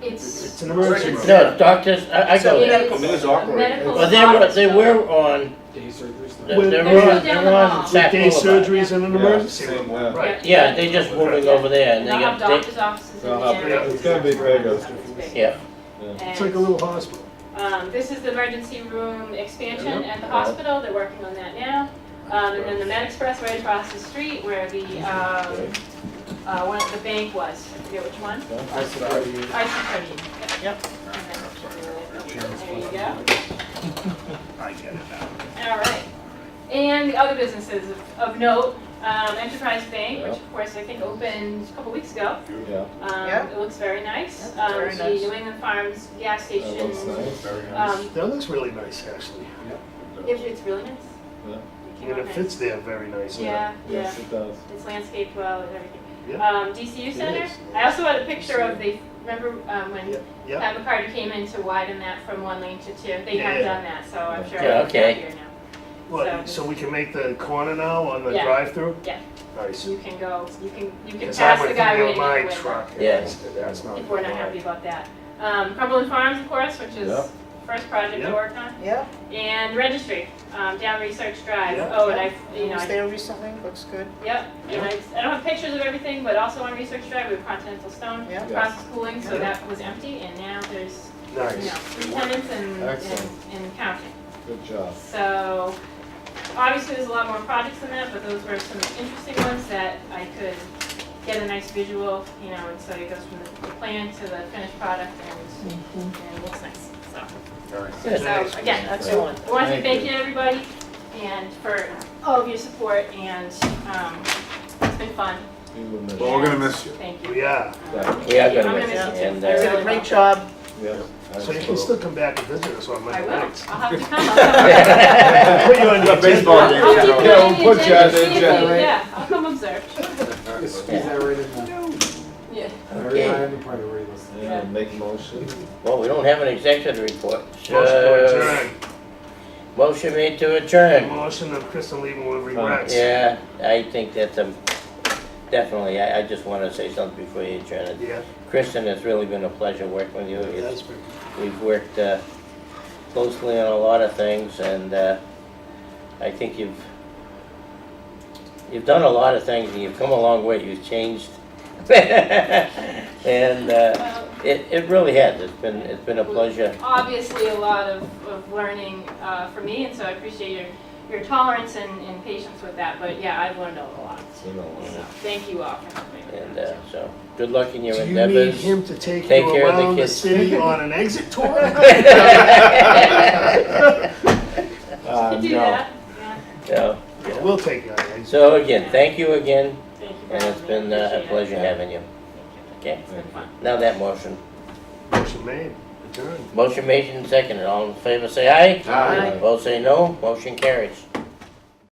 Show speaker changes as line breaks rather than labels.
It's,
It's an emergency
It's-
room.
No, doctors, I, I
So
go there.
medical,
It was awkward.
medical
But they were, they
officer.
were on,
Day surgery's
they
not.
were
With
on,
They're still
they
down
were
the
on
hall.
Sack
day
Boulevard.
surgeries and an
Yeah,
emergency
same,
room.
yeah.
Right.
Yeah, they just moving over there and they
They'll have
got,
doctor's offices in
They'll have-
there.
it's gonna be big, uh,
It's
they, yeah.
big.
It's like a little hospital.
Um, this is the emergency room expansion at the hospital, they're working on that now. Um, and then the Med Express right across the street where the, um, uh, one of the bank was, I forget which one.
That's what I use.
I see, yep. There you go.
I get it now.
All right. And the other businesses of- of note, um, Enterprise Bank, which of course I think opened a couple weeks ago.
Yeah,
Um,
Yeah.
It looks very nice.
Yeah,
Um,
very
The
nice.
New England Farms gas
that
station,
looks nice.
Very nice.
um,
That looks really nice, actually.
it- it's really nice.
Yeah.
It came
And
out
it
nice.
fits there very nicely.
Yeah, yeah.
Yes, it does.
It's landscaped well and everything.
Yeah.
Um, DCU Center,
is.
I also had a picture of the, remember um, when
Yeah, yeah.
Pat McCarty came in to widen that from one lane to two? They have
Yeah.
done that, so I'm sure
Yeah,
it's
okay.
happier now.
Well, so we can make the corner now on the
Yeah.
drive-through?
Yeah.
Nice.
You can go, you can, you can
Because I
pass the
went
guy
through
right in
my
the window.
truck. and
Yeah.
that's- That's not.
If we're not happy about that. Um, Cumberland Farms, of course, which is
Yeah.
first project to
Yeah.
work on,
Yeah,
and registry, um, down Research Drive.
Yeah.
Oh, and I,
I
you know,
was
I,
there recently, looks good,
yep, and I, I don't have pictures of everything, but also on Research Drive, we have Continental Stone,
yeah.
Yeah.
process cooling, so
Yeah.
that was empty, and now there's, you know,
Nice.
three tenants and, and,
Excellent.
and counting.
Good job.
So, obviously, there's a lot more projects than that, but those were some interesting ones that I could get a nice visual, you know, and so it goes from the- the plan to the finished product and, and it looks nice, so.
Good.
So, again,
Excellent.
I want to say
Thank
thank
you.
you, everybody, and for all of your support, and, um, it's been fun.
You will miss
Well,
it.
we're gonna miss you.
Thank you.
We are.
Um,
Yeah, I'm
I'm
gonna
gonna
miss
miss
it.
you
And,
too.
uh,
You did a great job.
Yes.
So you can still come back and visit us on
I
Monday
will, I'll
nights.
have to come. I'll
Put you on the
Yeah, baseball
I'll
agenda.
game.
keep it on
Yeah,
the
we'll put you on the
see if you-
agenda.
Yeah, I'll come observe, yeah.
Okay,
Yeah, make motion.
well, we don't have an executive report.
Motion to
So, motion made to
adjourn.
adjourn.
Motion of Kristen Lee will regrets.
Yeah, I think that's a, definitely, I, I just wanna say something before you adjourn it.
Yeah,
Kristen, it's really been a pleasure working with you. It's
that's pretty.
We've worked uh, closely on a lot of things, and uh, I think you've, you've done a lot of things, and you've come a long way, you've changed. And uh,
Well,
it, it really has, it's been, it's been a pleasure.
obviously a lot of, of learning uh, for me, and so I appreciate your, your tolerance and, and patience with that. But yeah, I've learned a lot.
You know,
So thank you all for helping. me.
And uh, so, good luck in your
Do you need
endeavors.
him to take
Take
you
care of the
around the
kids.
city on an exit tour?
uh,
To do
no.
that, yeah,
So-
We'll take you on an exit.
So again, thank you again,
thank you. for
and it's
having me.
been uh, a
Appreciate it.
pleasure having you. Okay,
It's been fun.
now that motion.
Motion made, adjourned.
Motion made and seconded, all in favor say aye.
Aye.
Both say no, motion carries.